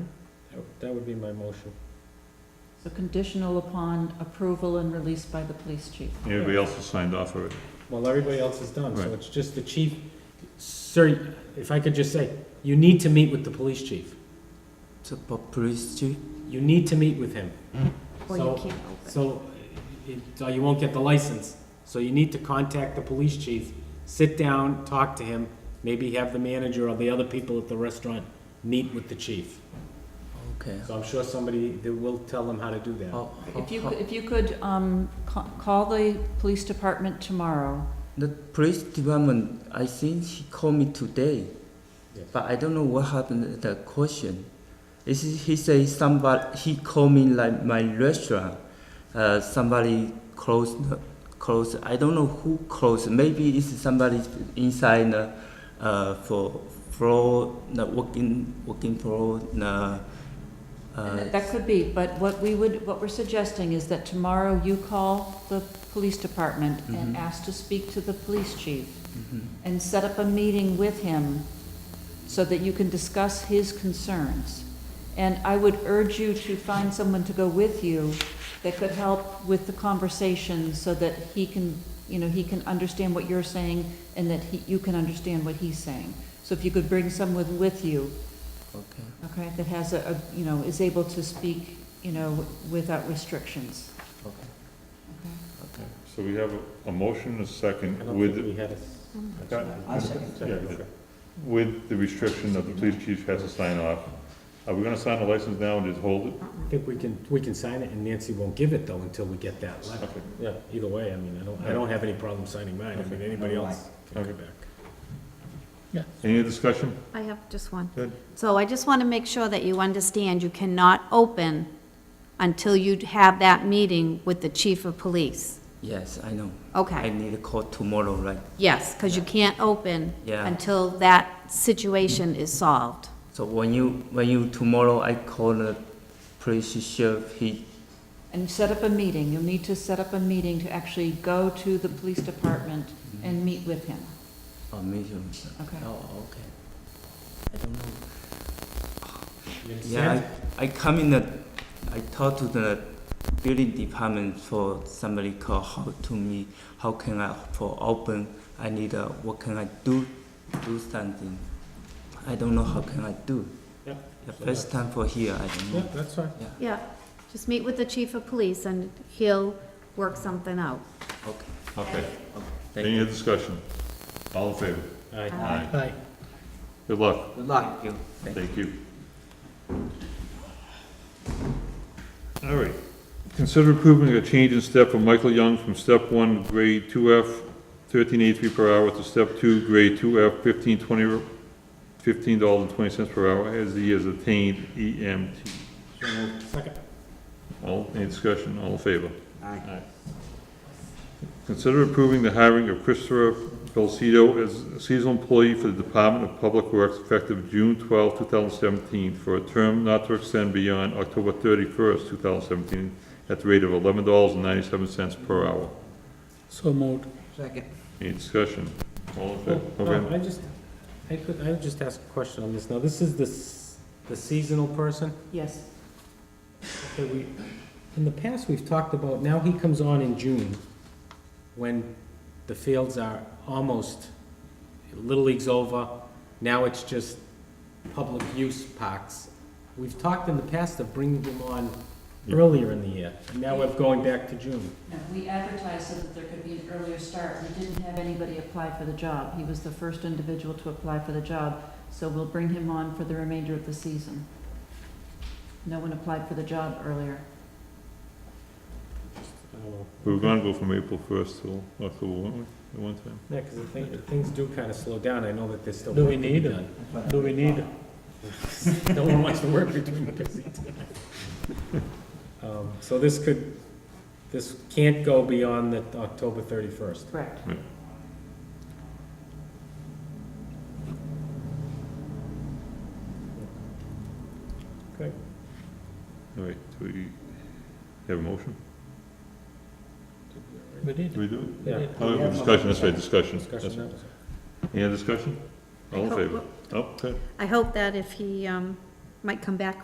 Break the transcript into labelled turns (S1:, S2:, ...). S1: That- That would be my motion.
S2: So conditional upon approval and release by the police chief.
S3: Everybody else has signed off already.
S1: Well, everybody else is done, so
S3: Right.
S1: it's just the chief. Sir, if I could just say, you need to meet with the police chief.
S4: So, but police chief?
S1: You need to meet with him.
S5: Or you
S1: So-
S5: can't open.
S1: So, it- so you won't get the license. So you need to contact the police chief, sit down, talk to him, maybe have the manager or the other people at the restaurant meet with the chief.
S4: Okay.
S1: So I'm sure somebody, that will tell them how to do that.
S4: How, how,
S2: If you,
S4: how-
S2: if you could, um, ca- call the police department tomorrow.
S4: the police department, I think he called me today,
S1: Yes.
S4: but I don't know what happened at the question. Is he he say somebody he called me like my restaurant, uh, somebody closed closed. I don't know who closed. Maybe it's somebody inside the uh, for floor the working working floor the.
S2: And
S4: Uh,
S2: that- That could be, but what we would, what we're suggesting is that tomorrow you call the police department and
S4: Mhm.
S2: ask to speak to the police chief
S4: mhm.
S2: and set up a meeting with him so that you can discuss his concerns. And I would urge you to find someone to go with you that could help with the conversation so that he can, you know, he can understand what you're saying and that he, you can understand what he's saying. So if you could bring someone with you,
S4: Okay.
S2: okay, that has a, a- you know, is able to speak, you know, without restrictions.
S4: Okay.
S2: Okay.
S4: Okay.
S3: So we have a- a motion, a
S1: I
S3: second,
S1: don't think
S3: with,
S1: we had a.
S5: Mm.
S3: I second. Yeah, you did. with the restriction that the police chief has to sign off. Are we gonna sign the license now and just hold it?
S1: I think we can, we can sign it, and Nancy won't give it, though, until we get that letter.
S3: Okay.
S1: Yeah, either way, I mean, I don't, I don't have any problem signing mine, I mean, anybody else can come back.
S3: Any other discussion?
S5: I have just one.
S3: Good.
S5: So I just want to make sure that you understand you cannot open until you have that meeting with the chief of police.
S4: Yes, I know. I
S5: Okay,
S4: need a call tomorrow, right?
S5: yes, because you can't open
S4: Yeah.
S5: until that situation is solved.
S4: So when you when you tomorrow I call the police sheriff, he
S2: And set up a meeting, you'll need to set up a meeting to actually go to the police department and meet with him,
S4: oh meet him.
S2: okay?
S4: Oh okay. I don't know.
S1: You
S4: Yeah,
S1: understand?
S4: I, I come in the I talk to the building department for somebody call how to me how can I for open I need a what can I do do something. I don't know how can I do.
S1: Yeah.
S4: The first time for here I don't
S1: Yeah,
S4: know.
S1: that's fine.
S5: Yeah, just meet with the chief of police and he'll work something out.
S4: Okay.
S3: Okay.
S4: Thank
S3: Any
S4: you.
S3: other discussion? All in favor?
S1: Aye.
S3: Aye. Good luck.
S4: Good luck. Thank you. Thank you.
S3: Thank you. All right. Consider approving a change in step for Michael Young from step one, grade two F, thirteen eighty-three per hour to step two, grade two F, fifteen twenty, fifteen dollars and twenty cents per hour as he has E attained EMT.
S1: Second.
S3: All, any discussion, all in favor? Aye. Consider approving the hiring of Christopher Belcedo as a seasonal employee for the Department of Public Works effective June 12, 2017, for a term not to extend beyond October 31st, 2017, at the rate of $11.97 per hour.
S6: So moved.
S4: Second.
S3: Any discussion? All in favor?
S1: No,
S3: Okay.
S1: Oh, um, I just, I could, I would just ask a question on this. Now, this is the, s- the seasonal person?
S2: Yes,
S1: Okay, we, in the past, we've talked about, now he comes on in June, when the fields are almost, Little League's over, now it's just public use parks. We've talked in the past of bringing him on
S3: Yeah.
S1: earlier in the year, and now we're going back to June.
S2: no, we advertised so that there could be an earlier start, we didn't have anybody apply for the job, he was the first individual to apply for the job, so we'll bring him on for the remainder of the season. No one applied for the job earlier.
S3: We were gonna go from April 1st till October, weren't we, at one time?
S1: Yeah, because things do kind of slow down, I know that there's still
S6: Do
S1: work
S6: we
S1: to be
S6: need him?
S1: done.
S6: Do we need,
S1: No one wants to work between the busy times. Um, So this could, this can't go beyond the October thirty-first.
S2: Correct.
S3: All right, do we have a motion?
S6: we need?
S3: Do we do it?
S1: Yeah.
S3: Oh, discussion, that's right, discussion. That's
S1: Discussion
S3: right.
S1: now?
S3: Any other discussion? All in favor? Oh, okay.
S5: I hope that if he, um, might come back